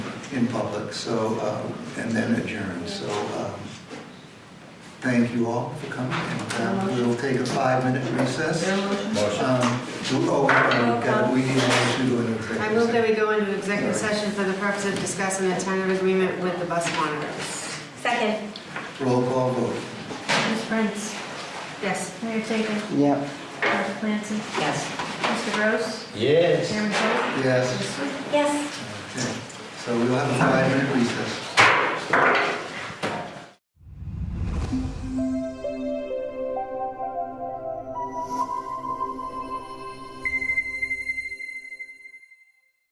in public, so, uh, and then adjourn. So um, thank you all for coming, and uh, we'll take a five-minute recess. Your motion? Um, do- Oh, uh, God, we need a motion to go into executive I move that we session. go into executive session for the purpose of discussing the tentative agreement with the bus monitors. Second. Roll call vote. Ms. Prince, Yes. Mayor Taker, Yep. Dr. Clancy, Yes. Mr. Gross, Yes. Chairman Coe. Yes, Yes. okay. So we'll have a five-minute recess.